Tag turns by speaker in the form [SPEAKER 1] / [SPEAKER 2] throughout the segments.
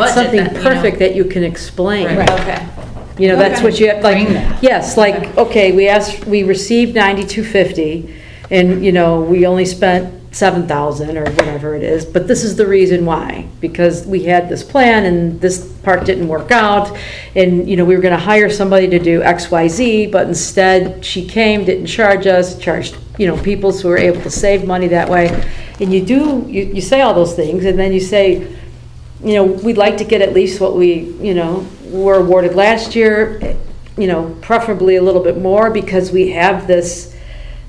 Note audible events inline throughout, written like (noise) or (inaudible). [SPEAKER 1] That's
[SPEAKER 2] budget
[SPEAKER 1] something
[SPEAKER 2] that, you know.
[SPEAKER 1] perfect that you can explain.
[SPEAKER 3] Right.
[SPEAKER 2] Okay.
[SPEAKER 1] You know, that's what you have, like,
[SPEAKER 3] Bring that.
[SPEAKER 1] yes, like, okay, we asked, we received 9250, and, you know, we only spent 7,000 or whatever it is, but this is the reason why, because we had this plan, and this part didn't work out, and, you know, we were gonna hire somebody to do X, Y, Z, but instead, she came, didn't charge us, charged, you know, people who were able to save money that way. And you do, you, you say all those things, and then you say, you know, we'd like to get at least what we, you know, were awarded last year, you know, preferably a little bit more because we have this,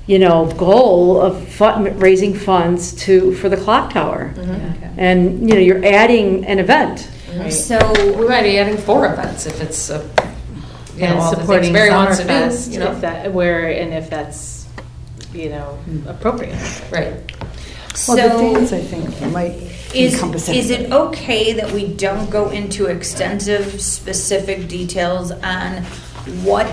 [SPEAKER 1] you know, goal of fund, raising funds to, for the clock tower.
[SPEAKER 2] Mm-hmm.
[SPEAKER 1] And, you know, you're adding an event.
[SPEAKER 2] So,
[SPEAKER 3] We might be adding four events if it's, uh, you know,
[SPEAKER 4] And
[SPEAKER 3] all the things
[SPEAKER 4] supporting
[SPEAKER 3] Barry wants to
[SPEAKER 4] Summerfest,
[SPEAKER 3] do, you know?
[SPEAKER 4] if that, where, and if that's, you know, appropriate.
[SPEAKER 3] Right.
[SPEAKER 2] so.
[SPEAKER 5] Well, the dance, I think, might
[SPEAKER 2] Is,
[SPEAKER 5] encompass
[SPEAKER 2] is it
[SPEAKER 5] everything.
[SPEAKER 2] okay that we don't go into extensive, specific details on what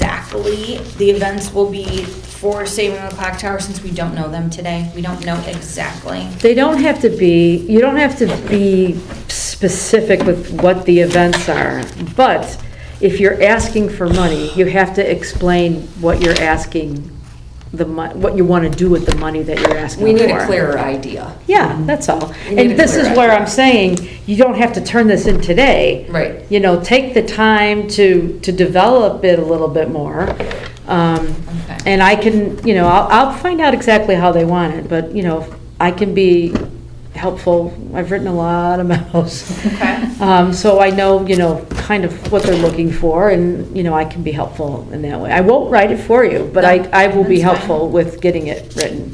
[SPEAKER 2] exactly the events will be for Saving the Clock Tower, since we don't know them today? We don't know exactly.
[SPEAKER 1] They don't have to be, you don't have to be specific with what the events are, but if you're asking for money, you have to explain what you're asking, the mon, what you want to do with the money that you're asking for.
[SPEAKER 3] We need a clearer idea.
[SPEAKER 1] Yeah, that's all.
[SPEAKER 3] You need a
[SPEAKER 1] And this is
[SPEAKER 3] clear
[SPEAKER 1] where
[SPEAKER 3] idea.
[SPEAKER 1] I'm saying, you don't have to turn this in today.
[SPEAKER 3] Right.
[SPEAKER 1] You know, take the time to, to develop it a little bit more. Um,
[SPEAKER 2] Okay.
[SPEAKER 1] And I can, you know, I'll, I'll find out exactly how they want it, but, you know, I can be helpful. I've written a lot of (laughs) memos.
[SPEAKER 2] Okay.
[SPEAKER 1] Um, so I know, you know, kind of what they're looking for, and, you know, I can be helpful in that way. I won't write it for you, but I,
[SPEAKER 3] No,
[SPEAKER 1] I will be
[SPEAKER 3] that's fine.
[SPEAKER 1] helpful with getting it written.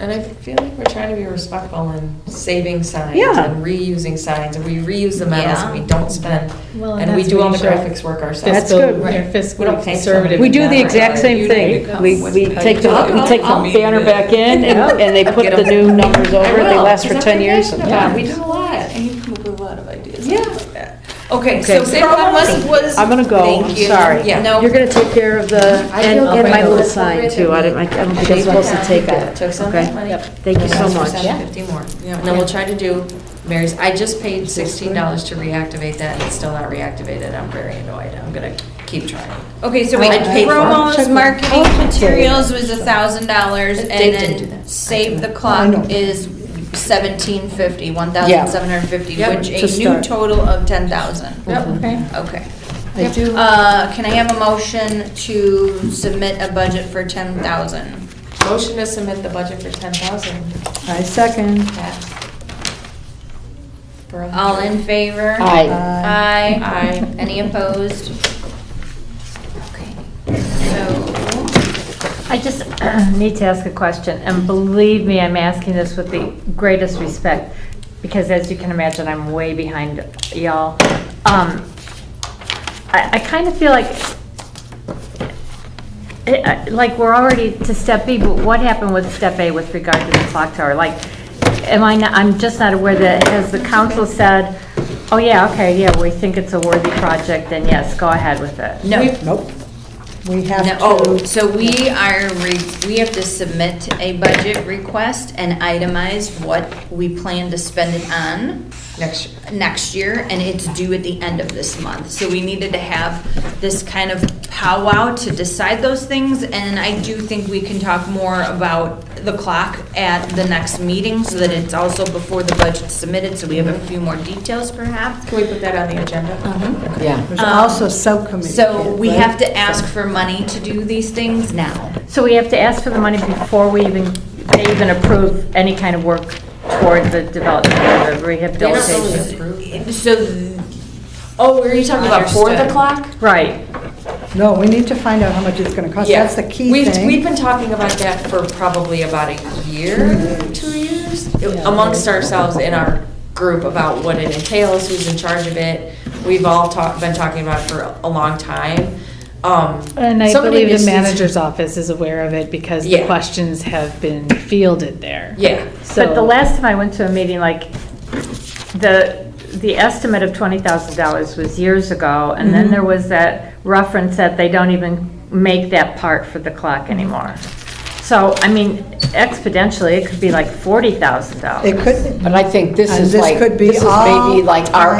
[SPEAKER 3] And I feel like we're trying to be respectful in saving signs
[SPEAKER 1] Yeah.
[SPEAKER 3] and reusing signs, and we reuse the metals, and
[SPEAKER 2] Yeah.
[SPEAKER 3] we don't spend,
[SPEAKER 4] Well,
[SPEAKER 3] and we
[SPEAKER 4] that's
[SPEAKER 3] do all
[SPEAKER 4] when you
[SPEAKER 3] the
[SPEAKER 4] show
[SPEAKER 3] graphics work ourselves.
[SPEAKER 1] That's
[SPEAKER 4] Fiscal-
[SPEAKER 1] good.
[SPEAKER 4] They're
[SPEAKER 3] Right. We
[SPEAKER 4] fiscally
[SPEAKER 3] don't pay
[SPEAKER 4] conservative.
[SPEAKER 3] someone.
[SPEAKER 1] We do
[SPEAKER 4] in
[SPEAKER 1] the
[SPEAKER 4] that
[SPEAKER 1] exact
[SPEAKER 4] regard.
[SPEAKER 1] same thing. We, we take the, we take the banner back in and, and they put the new numbers
[SPEAKER 3] I
[SPEAKER 1] over it. They
[SPEAKER 3] will,
[SPEAKER 1] last for
[SPEAKER 3] 'cause I'm
[SPEAKER 1] ten years
[SPEAKER 3] forgetting about it. We
[SPEAKER 1] sometimes.
[SPEAKER 3] did a lot.
[SPEAKER 2] And you come up with a lot of ideas.
[SPEAKER 3] Yeah.
[SPEAKER 2] Okay,
[SPEAKER 1] Okay.
[SPEAKER 2] so Pro was, was.
[SPEAKER 1] I'm gonna go.
[SPEAKER 2] Thank
[SPEAKER 1] I'm
[SPEAKER 2] you.
[SPEAKER 1] sorry.
[SPEAKER 3] Yeah.
[SPEAKER 2] No.
[SPEAKER 1] You're gonna take care of the,
[SPEAKER 3] I
[SPEAKER 1] and,
[SPEAKER 3] feel
[SPEAKER 1] and my
[SPEAKER 3] guilty.
[SPEAKER 1] little sign too. I don't, I don't think I'm supposed to take that.
[SPEAKER 3] that. Took some
[SPEAKER 1] Okay.
[SPEAKER 3] money.
[SPEAKER 4] Yep.
[SPEAKER 1] Thank you so
[SPEAKER 3] Ask for
[SPEAKER 1] much.
[SPEAKER 3] seven Fifty more. And then we'll try to do Mary's, I just paid sixteen dollars to reactivate that, and it's still not reactivated, I'm very annoyed, I'm gonna keep trying.
[SPEAKER 2] Okay, so
[SPEAKER 3] I'd pay for it.
[SPEAKER 2] promos, marketing materials was a thousand dollars, and
[SPEAKER 3] They didn't do
[SPEAKER 2] then
[SPEAKER 3] that.
[SPEAKER 2] save the
[SPEAKER 5] I know.
[SPEAKER 2] clock is seventeen fifty, one thousand seven hundred fifty,
[SPEAKER 3] Yeah.
[SPEAKER 2] which
[SPEAKER 5] To
[SPEAKER 2] a new
[SPEAKER 5] start.
[SPEAKER 2] total of ten thousand.
[SPEAKER 3] Oh,
[SPEAKER 4] Okay.
[SPEAKER 2] Okay.
[SPEAKER 5] I do,
[SPEAKER 2] Uh, can I have a motion to submit a budget for ten thousand?
[SPEAKER 3] Motion to submit the budget for ten thousand.
[SPEAKER 5] I second.
[SPEAKER 2] All in favor?
[SPEAKER 4] Aye.
[SPEAKER 2] Aye.
[SPEAKER 3] Aye.
[SPEAKER 2] Any opposed? Okay. So,
[SPEAKER 6] I just (clears throat) need to ask a question, and believe me, I'm asking this with the greatest respect, because as you can imagine, I'm way behind y'all. Um, I, I kind of feel like, it- I- like, we're already to step B, but what happened with step A with regard to the clock tower? Like, am I not, I'm just not aware that, has the council said, oh, yeah, okay, yeah, we think it's a worthy project, then yes, go ahead with it?
[SPEAKER 2] no.
[SPEAKER 5] Nope.
[SPEAKER 2] No,
[SPEAKER 5] We have
[SPEAKER 2] oh,
[SPEAKER 5] to,
[SPEAKER 2] so we are, re- we have to submit a budget request and itemize what we plan to spend it on
[SPEAKER 3] Next year.
[SPEAKER 2] next year, and it's due at the end of this month. So we needed to have this kind of powwow to decide those things, and I do think we can talk more about the clock at the next meeting, so that it's also before the budget's submitted, so we have a few more details perhaps.
[SPEAKER 3] Can we put that on the agenda?
[SPEAKER 1] Uh-huh.
[SPEAKER 5] there's also subcommittee.
[SPEAKER 2] Um, So we
[SPEAKER 5] right?
[SPEAKER 2] have to ask for money to do these things now.
[SPEAKER 6] So we have to ask for the money before we even, they even approve any kind of work toward the development of the rehabilitation?
[SPEAKER 2] So, th-
[SPEAKER 3] Oh, were you talking about four
[SPEAKER 2] Understood.
[SPEAKER 3] o'clock?
[SPEAKER 6] Right.
[SPEAKER 5] No, we need to find out how much it's gonna cost. That's the key
[SPEAKER 3] We've, we've
[SPEAKER 5] thing.
[SPEAKER 3] been talking about that for probably about a year, two years, amongst ourselves in our group about what it entails, who's in charge of it. We've all talked, been talking about it for a long time. Um,
[SPEAKER 4] And I
[SPEAKER 3] somebody
[SPEAKER 4] believe the
[SPEAKER 3] just needs to-
[SPEAKER 4] manager's office is aware of it because
[SPEAKER 3] Yeah.
[SPEAKER 4] the questions have been fielded there.
[SPEAKER 3] Yeah.
[SPEAKER 6] But the
[SPEAKER 4] So,
[SPEAKER 6] last time I went to a meeting, like, the, the estimate of $20,000 was years ago, and then there was that reference that they don't even make that part for the clock anymore. So, I mean, exponentially, it could be like $40,000.
[SPEAKER 5] It could,
[SPEAKER 7] But I think this
[SPEAKER 5] And
[SPEAKER 7] is
[SPEAKER 5] this
[SPEAKER 7] like,
[SPEAKER 5] could be
[SPEAKER 7] this is
[SPEAKER 5] all
[SPEAKER 7] maybe like our